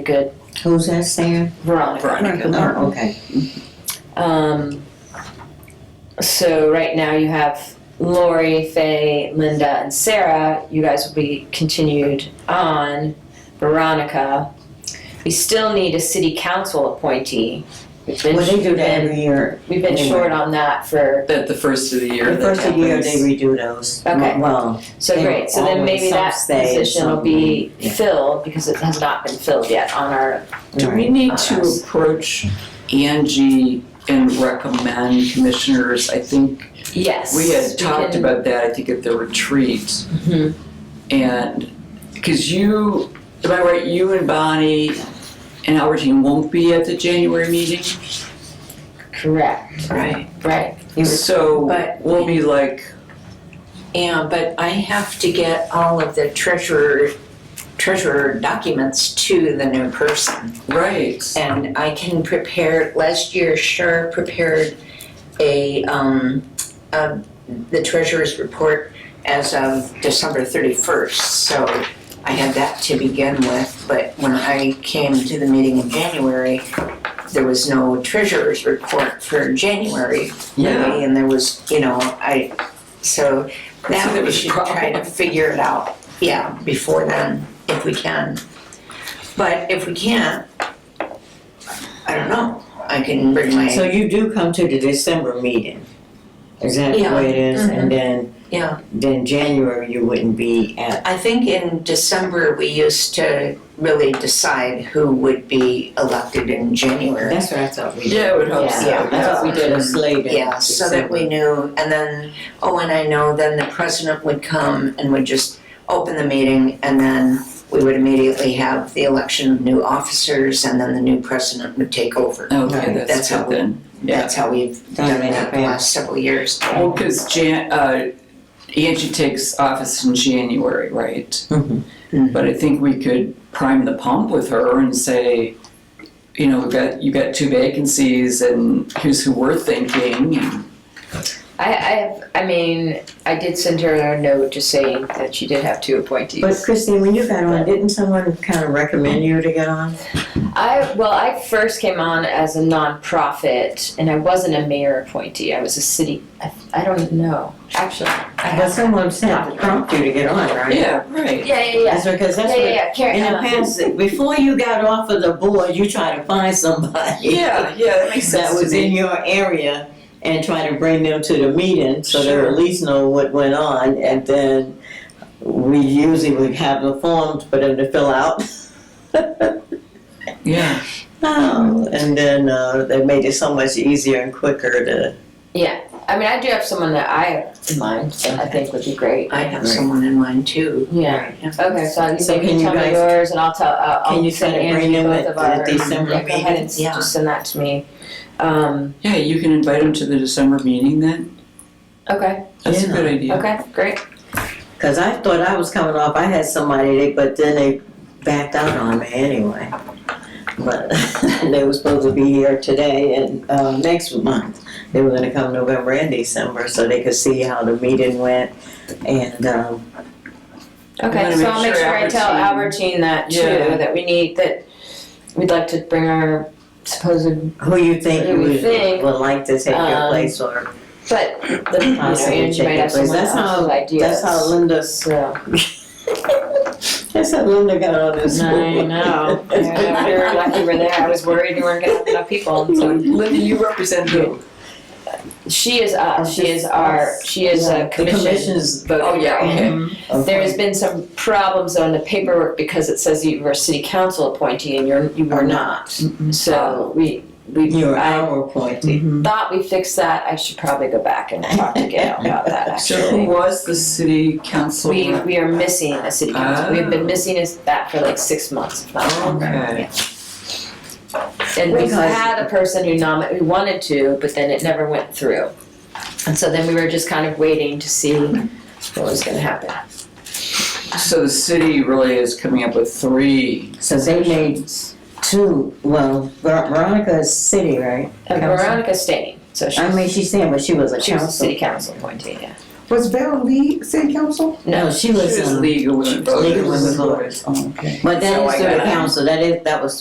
good Who's that, Sam? Veronica. Veronica. Oh, okay. Um, so right now you have Lori, Faye, Linda, and Sarah. You guys will be continued on. Veronica. We still need a city council appointee. We've been, Well, they do that every year. we've been short on that for That the first of the year The that first of the year, happens. they redo those. Okay. Well, so They great. So then always maybe that some stay, position will some- be yeah. filled because it has not been filled yet on our Do we right. need to approach Angie and recommend commissioners? I think yes. we had talked can- about that, I think at the retreat. Mhm. And, because you, am I right, you and Bonnie and Albertine won't be at the January meeting? Correct. Right, Right. So But- we'll be like, yeah, but I have to get all of the treasurer, treasurer documents to the new person. right, And I can prepare, last year Shar prepared a, um, um, the treasurer's report as of December thirty-first, so I had that to begin with, but when I came to the meeting in January, there was no treasurer's report for January, yeah. and there was, you know, I, so So now there we was a should try to problem. figure it out, yeah, before then, if we can. But if we can't, I don't know, I can bring So my, you do come to the December meeting? Is that the way it is? Mm-hmm. And then, yeah. then January, you wouldn't be at, I think in December, we used to really decide who would be elected in January. that's what I thought we did. Yeah, it would help. Yeah. so, Yeah, I thought we did a slate in Yeah, so that we knew, and then, oh, and I know, then the president would come and would just open the meeting, and then we would immediately have the election of new officers, and then the new president would take over. Okay, That's that's how good we- then, yeah. That's how we've done it the last several years. Well, because Jan, uh, Angie takes office in January, right? Mhm. But I think we could prime the pump with her and say, you know, we've got, you've got two vacancies and here's who we're thinking. I, I have, I mean, I did send her a note just saying that she did have two appointees. But Christine, when you got on, didn't someone kind of recommend you to get on? I well, I first came on as a nonprofit, and I wasn't a mayor appointee. I was a city. I, I don't know actually. I But have, someone said to prompt you to get on, right? Yeah, right. yeah, yeah, yeah, That's because yeah, that's yeah, what, yeah. Karen, in the uh, past, before you got off of the board, you try to find somebody. Yeah, yeah, that makes sense that to was in me. your area and try to bring them to the meeting so they Sure. at least know what went on and then we usually would have the forms for them to fill out. Yeah, Um, Oh, and then uh, they made it so much easier and quicker to. yeah. I mean, I do have someone that I have in mind that I think would be great. I have someone in mind too. Yeah. Okay, so, So maybe can you tell me guys- yours, and I'll tell. Uh, I'll Can you send try to Angie bring them both at of the our December yeah, go ahead and meeting? just send that to me. Um, yeah, you can invite him to the December meeting then. okay, That's a Yeah. good idea. okay, great. Because I thought I was coming off, I had somebody, they, but then they backed out on me anyway. But they were supposed to be here today and uh, next month. They were going to come November and December so they could see how the meeting went. And um, Okay, wanna so make I'll make sure sure I tell Albertine- Albertine that too, Yeah. that we need, that we'd like to bring our supposed, Who you think Who you we would, think, would like to take um, your place or but the, you know, Possibly Angie might chicken have place. someone That's else how- with ideas. that's how Linda's So, that's how Linda got on this I board. know, Yeah, we were lucky we're there, I was worried we weren't gonna have enough people, and so, Linda, you represent who? she is, uh, she is our, she is Oh, Yeah, a The commission. commission's voter. Oh, yeah, okay. There has been some problems on the paperwork because it says you were a city council appointee and you're, you were Are not, so we, we. you're I- our appointee. thought we fixed that, I should probably go back and talk to Gail about that, So who actually. was the city council We, rep? we are missing a city council, we've been Oh. missing us that for like six months, if not longer. Okay. And we Because- had a person who nominated, who wanted to, but then it never went through. And so then we were just kind of waiting to see what was gonna happen. So the city really is coming up with three. So they made two. Well, Ver- Veronica is city, right? And Council. Veronica staying, so she's, I mean, she's saying, but she was a she was a council. city council appointee, yeah. Was Val Lee city council? No, she was, She was um, legal women Legal voters. Women Women Voters. Oh, okay. but that So is I through the gotta- council, that is, that was